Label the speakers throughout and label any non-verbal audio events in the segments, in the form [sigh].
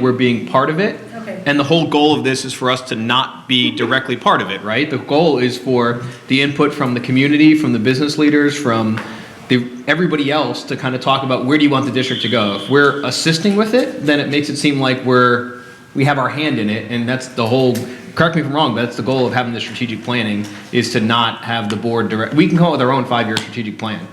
Speaker 1: we're being part of it.
Speaker 2: Okay.
Speaker 1: And the whole goal of this is for us to not be directly part of it, right? The goal is for the input from the community, from the business leaders, from the, everybody else to kind of talk about where do you want the district to go? If we're assisting with it, then it makes it seem like we're, we have our hand in it, and that's the whole, correct me if I'm wrong, but that's the goal of having the strategic planning, is to not have the board direct, we can come up with our own five-year strategic plan.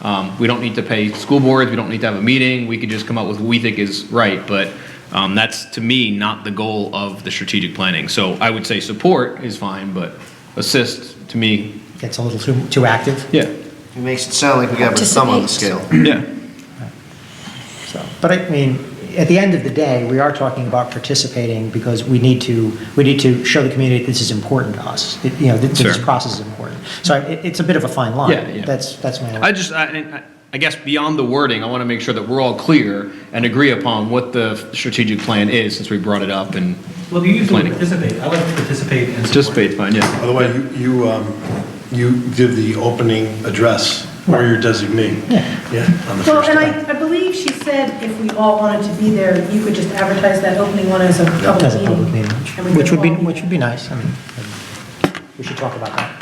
Speaker 1: Um, we don't need to pay school boards, we don't need to have a meeting, we could just come up with what we think is right, but, um, that's, to me, not the goal of the strategic planning. So I would say support is fine, but assist, to me,
Speaker 3: Gets a little too, too active,
Speaker 1: yeah,
Speaker 4: It makes it sound like we got our thumb on the scale.
Speaker 1: yeah.
Speaker 3: so. But I mean, at the end of the day, we are talking about participating because we need to, we need to show the community this is important to us. It- You know, that this
Speaker 1: Sure.
Speaker 3: process is important. So it, it's a bit of a fine line.
Speaker 1: Yeah, yeah.
Speaker 3: That's, that's my.
Speaker 1: I just, I, I- I guess beyond the wording, I want to make sure that we're all clear and agree upon what the strategic plan is, since we brought it up and
Speaker 5: Well, you usually
Speaker 1: Planning.
Speaker 5: participate. I like to participate and
Speaker 1: participate, fine, yeah.
Speaker 6: By the way, you, you, um, you give the opening address or your designee. Yeah. on the
Speaker 2: Well,
Speaker 6: first
Speaker 2: and
Speaker 6: day.
Speaker 2: I, I believe she said if we all wanted to be there, you could just advertise that opening one as a public meeting.
Speaker 3: As a public meeting,
Speaker 2: and we
Speaker 3: which
Speaker 2: could
Speaker 3: would be,
Speaker 2: all
Speaker 3: which would be nice. I mean, we should talk about that.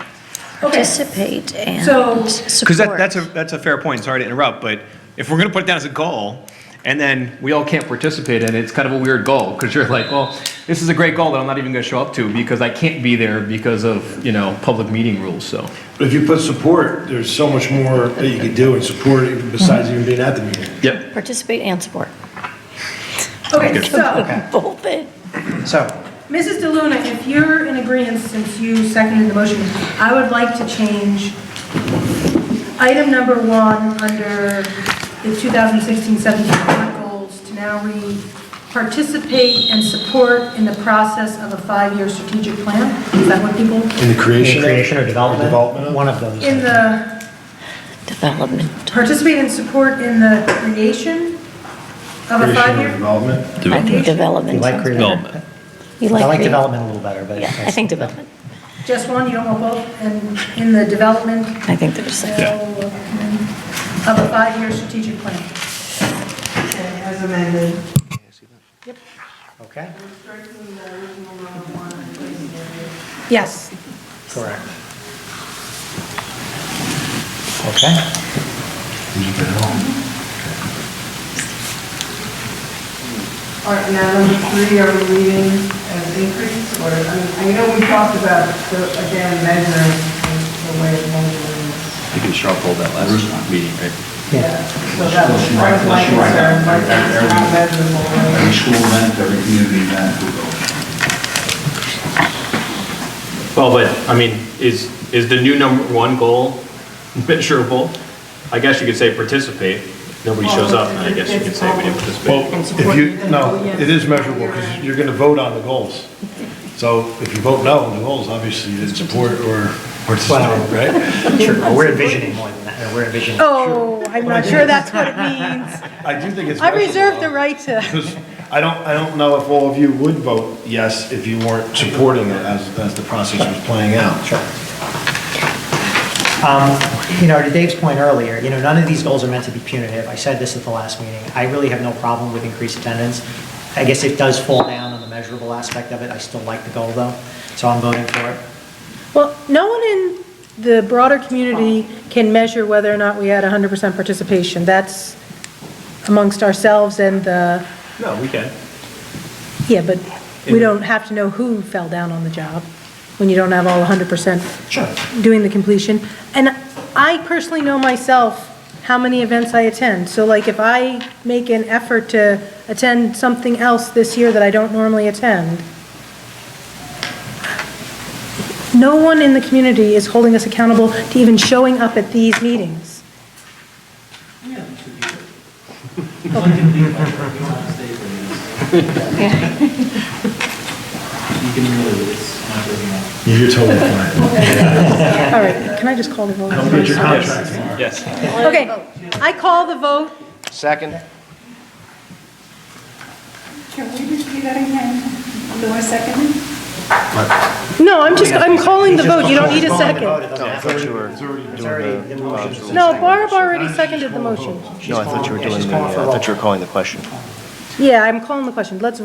Speaker 2: Okay,
Speaker 7: participate
Speaker 2: So-
Speaker 7: and support.
Speaker 1: Because that, that's a, that's a fair point, sorry to interrupt, but if we're going to put it down as a goal, and then we all can't participate in it, it's kind of a weird goal, because you're like, well, this is a great goal that I'm not even going to show up to, because I can't be there because of, you know, public meeting rules, so.
Speaker 6: But if you put support, there's so much more that you could do and support even besides even being at the meeting.
Speaker 1: Yep.
Speaker 7: Participate and support.
Speaker 2: okay,
Speaker 7: [laughs]
Speaker 2: so,
Speaker 7: Both in.
Speaker 3: So,
Speaker 2: Mrs. DeLuna, if you're in agreement, since you seconded the motion, I would like to change item number one under the 2016-17 current goals to now read, "Participate and support in the process of a five-year strategic plan." Is that what people,
Speaker 6: In the creation.
Speaker 3: in
Speaker 6: of-
Speaker 3: creation or development,
Speaker 6: Development of-
Speaker 3: one of those.
Speaker 2: in the
Speaker 7: Development.
Speaker 2: participate and support in the creation of a
Speaker 6: creation or
Speaker 2: five-year?
Speaker 6: Development.
Speaker 7: I think
Speaker 3: You
Speaker 7: development
Speaker 3: like
Speaker 7: sounds
Speaker 3: creative?
Speaker 7: better.
Speaker 1: Development.
Speaker 7: You
Speaker 3: I like
Speaker 7: creative.
Speaker 3: development a little better, but.
Speaker 7: Yeah, I think development.
Speaker 2: Just one, you don't want both, and in the development
Speaker 7: I think there's,
Speaker 2: so,
Speaker 7: a-
Speaker 2: of a five-year strategic plan.
Speaker 8: As amended.
Speaker 3: Okay,
Speaker 2: Yes.
Speaker 3: correct. Okay.
Speaker 8: All right, now number three, are we reading as increase or, I mean, I know we talked about, the again, measures, the way of measuring.
Speaker 9: You can sharp hold that last meeting, right?
Speaker 8: Yeah. So that was that was my concern, like, that's not measurable.
Speaker 9: Every
Speaker 8: right?
Speaker 9: school event, every community event, we go.
Speaker 10: Well, but, I mean, is, is the new number one goal measurable? I guess you could say participate. Nobody shows up, and I guess you could say we didn't participate.
Speaker 6: Well, if you, no, it is measurable because you're going to vote on the goals. So if you vote no on the goals, obviously you didn't support or participate, right?
Speaker 3: Sure, we're envisioning more than that, or we're envisioning.
Speaker 2: Oh, I'm not sure that's what it means.
Speaker 6: I do think it's.
Speaker 2: I reserve the
Speaker 6: measurable,
Speaker 2: right to,
Speaker 6: Because I don't, I don't know if all of you would vote yes if you weren't supporting it as, as the process was playing out.
Speaker 3: Sure. Um, You know, to Dave's point earlier, you know, none of these goals are meant to be punitive. I said this at the last meeting. I really have no problem with increased attendance. I guess it does fall down on the measurable aspect of it. I still like the goal, though, so I'm voting for it.
Speaker 2: well, no one in the broader community can measure whether or not we had 100% participation. That's amongst ourselves and the,
Speaker 5: No, we can.
Speaker 2: yeah, but we don't have to know who fell down on the job when you don't have all 100%.
Speaker 3: Sure.
Speaker 2: doing the completion. And I personally know myself how many events I attend. So like if I make an effort to attend something else this year that I don't normally attend, no one in the community is holding us accountable to even showing up at these meetings.
Speaker 5: [laughs] You can really, it's not working out.
Speaker 6: You're totally fine.
Speaker 2: All right, can I just call the vote?
Speaker 6: Don't get your contract.
Speaker 5: Yes.
Speaker 2: Okay, I call the vote.
Speaker 4: Second?
Speaker 8: Can we repeat that again? Do I second it?
Speaker 2: No, I'm just, I'm calling the vote. You don't need a second.
Speaker 4: No, I thought you were doing
Speaker 3: It's already,
Speaker 4: the.
Speaker 3: the motion's.
Speaker 2: No, Barb already seconded the motion.
Speaker 4: uh, No, I thought you were doing the, I thought you were calling the question.
Speaker 2: Yeah, I'm calling the question. Let's vote.